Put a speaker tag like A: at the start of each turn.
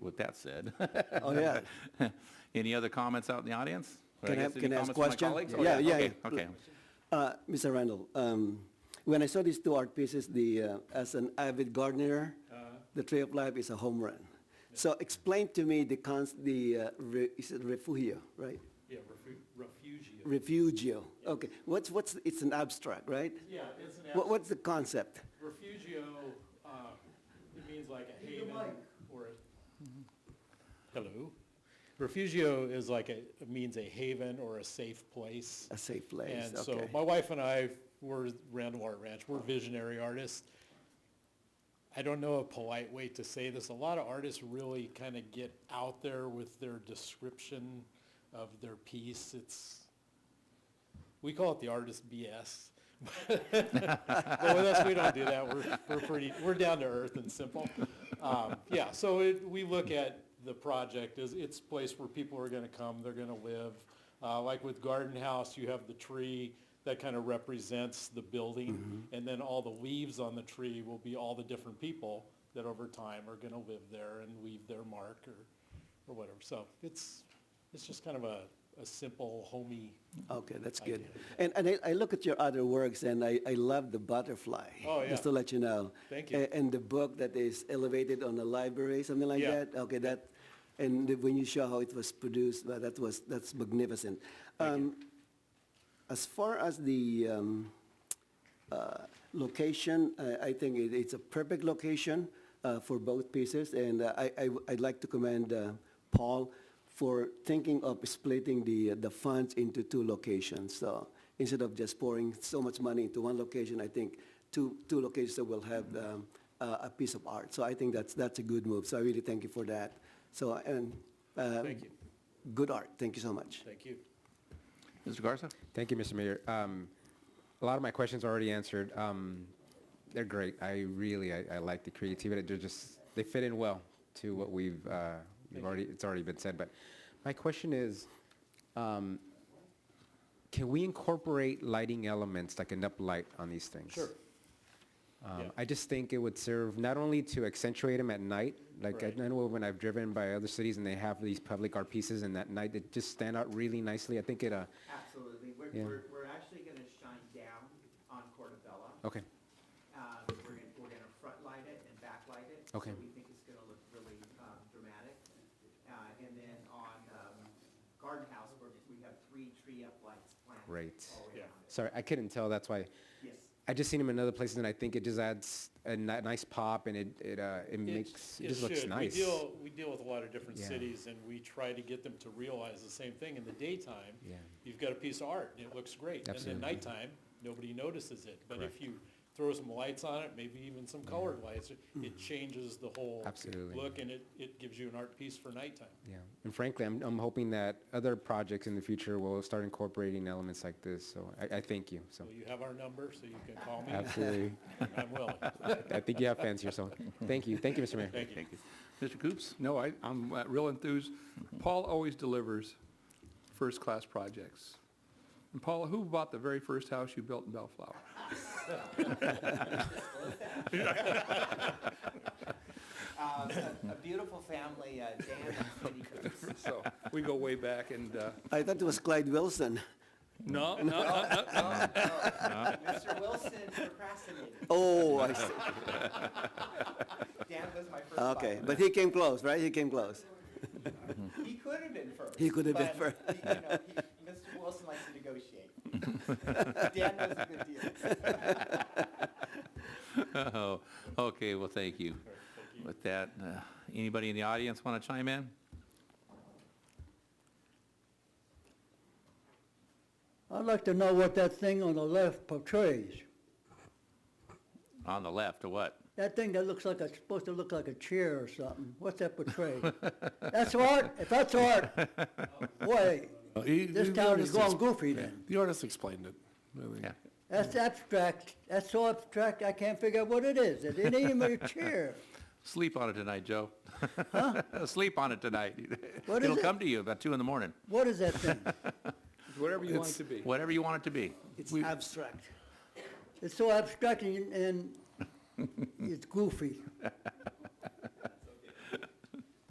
A: with that said.
B: Oh, yeah.
A: Any other comments out in the audience? Or
B: Can I-
A: guess any
B: can I
A: comments
B: ask
A: from my
B: question?
A: colleagues? Oh,
B: Yeah, yeah,
A: Okay,
B: yeah.
A: okay.
B: Uh, Mr. Randall, um, when I saw these two art pieces, the, uh, as an avid gardener,
A: Uh-huh.
B: the Tree of Life is a home run. So explain to me the cons, the, uh, re- is it refugio, right?
C: Yeah, refu- refugio.
B: Refugio, okay. What's, what's, it's an abstract, right?
C: Yeah, it's an,
B: What,
C: abs-
B: what's the concept?
C: refugio, uh, it means like a haven or a. Hello? Refugio is like a, it means a haven or a safe place.
B: A safe place,
C: And so
B: okay.
C: my wife and I were Randall Art Ranch, we're visionary artists. I don't know a polite way to say this. A lot of artists really kind of get out there with their description of their piece. It's, we call it the artist BS. But with us, we don't do that. We're, we're pretty, we're down to earth and simple. Um, Yeah, so it, we look at the project as it's a place where people are gonna come, they're gonna live. Uh, like with Garden House, you have the tree that kind of represents the building. And then all the leaves on the tree will be all the different people that over time are gonna live there and leave their mark or, or whatever. So it's, it's just kind of a, a simple homey,
B: Okay, that's good. And, and I, I look at your other works and I, I love the butterfly.
C: Oh, yeah.
B: Just to let you know.
C: Thank you.
B: A- And the book that is elevated on the library, something like
C: Yeah.
B: that? Okay, that, and the- when you show how it was produced, well, that was, that's magnificent. Um, As far as the um, uh, location, I- I think it- it's a perfect location uh, for both pieces. And uh, I, I- I'd like to commend uh, Paul for thinking of splitting the, uh, the funds into two locations. So instead of just pouring so much money into one location, I think two, two locations that will have um, a a piece of art. So I think that's, that's a good move. So I really thank you for that. So, and. uh,
C: Thank you.
B: Good art. Thank you so much.
C: thank you.
A: Mr. Garza?
D: Thank you, Mr. Mayor. Um, a lot of my questions are already answered. Um, they're great. I really, I, I like the creativity. They're just, they fit in well to what we've, uh, we've already, it's already been said. But my question is, um, can we incorporate lighting elements, like enough light on these things?
C: Sure.
D: Um,
C: Yeah.
D: I just think it would serve not only to accentuate them at night, like I
C: Right.
D: I know when I've driven by other cities and they have these public art pieces and at night they just stand out really nicely. I think it, uh,
E: Absolutely. We're,
D: Yeah.
E: we're, we're actually gonna shine down on Portobello.
D: okay.
E: Um, we're gonna, we're gonna front light it and backlight it.
D: Okay.
E: So we think it's gonna look really, um, dramatic. Uh, and then on, um, Garden House, we're, we have three tree up lights planted.
D: Right.
E: all
C: Yeah.
E: around it.
D: Sorry, I couldn't tell. That's why
E: Yes.
D: I just seen them in other places, and I think it just adds a ni- nice pop, and it it uh, it
C: It-
D: makes it,
C: it
D: just looks
C: should.
D: nice.
C: We deal, we deal with a lot of different
D: Yeah.
C: cities, and we try to get them to realize the same thing. In the daytime,
D: Yeah.
C: you've got a piece of art, and it looks great. And then
D: Absolutely.
C: nighttime, nobody notices it. But if you throw some lights on it, maybe even some colored lights, it- it changes the whole
D: Absolutely.
C: look, and it, it gives you an art piece for nighttime.
D: Yeah, and frankly, I'm I'm hoping that other projects in the future will start incorporating elements like this. So I, I thank you. So
C: Well, you have our number, so you can call me.
D: absolutely,
C: I'm willing.
D: I think you have fans here. So thank you, thank you, Mr. Mayor.
C: Thank you.
A: Thank you. Mr. Coops?
F: No, I, I'm uh, real enthused. Paul always delivers first-class projects. And Paul, who bought the very first house you built in Bellflower?
E: Um, a, a beautiful family, uh, Dan and Cindy Coops.
F: So we go way back and, uh,
B: I thought it was Clyde Wilson.
F: no, no, uh, uh,
E: Oh, oh, Mr. Wilson procrastinated.
B: Oh, I see.
E: Dan was my first
B: Okay,
E: buyer.
B: but he came close, right? He came close.
E: He could have been first.
B: He could have been
E: but, you know, he- Mr. Wilson likes to negotiate. Dan knows a good deal.
A: Oh, okay, well, thank you. With that, uh, anybody in the audience want to chime in?
G: I'd like to know what that thing on the left portrays.
A: On the left, or what?
G: That thing that looks like it's supposed to look like a chair or something. What's that portray? That's art? If that's art, boy, this town is going goofy then.
H: The artist explained it. I think.
A: Yeah.
G: That's abstract. That's so abstract, I can't figure out what it is. It ain't even a chair.
A: Sleep on it tonight, Joe. Sleep on it tonight.
G: What is
A: It'll
G: it?
A: come to you about two in the morning,
G: What is that thing?
F: whatever you want it to be.
A: whatever you want it to be.
B: It's
F: We-
B: abstract.
G: It's so abstract and, and it's goofy.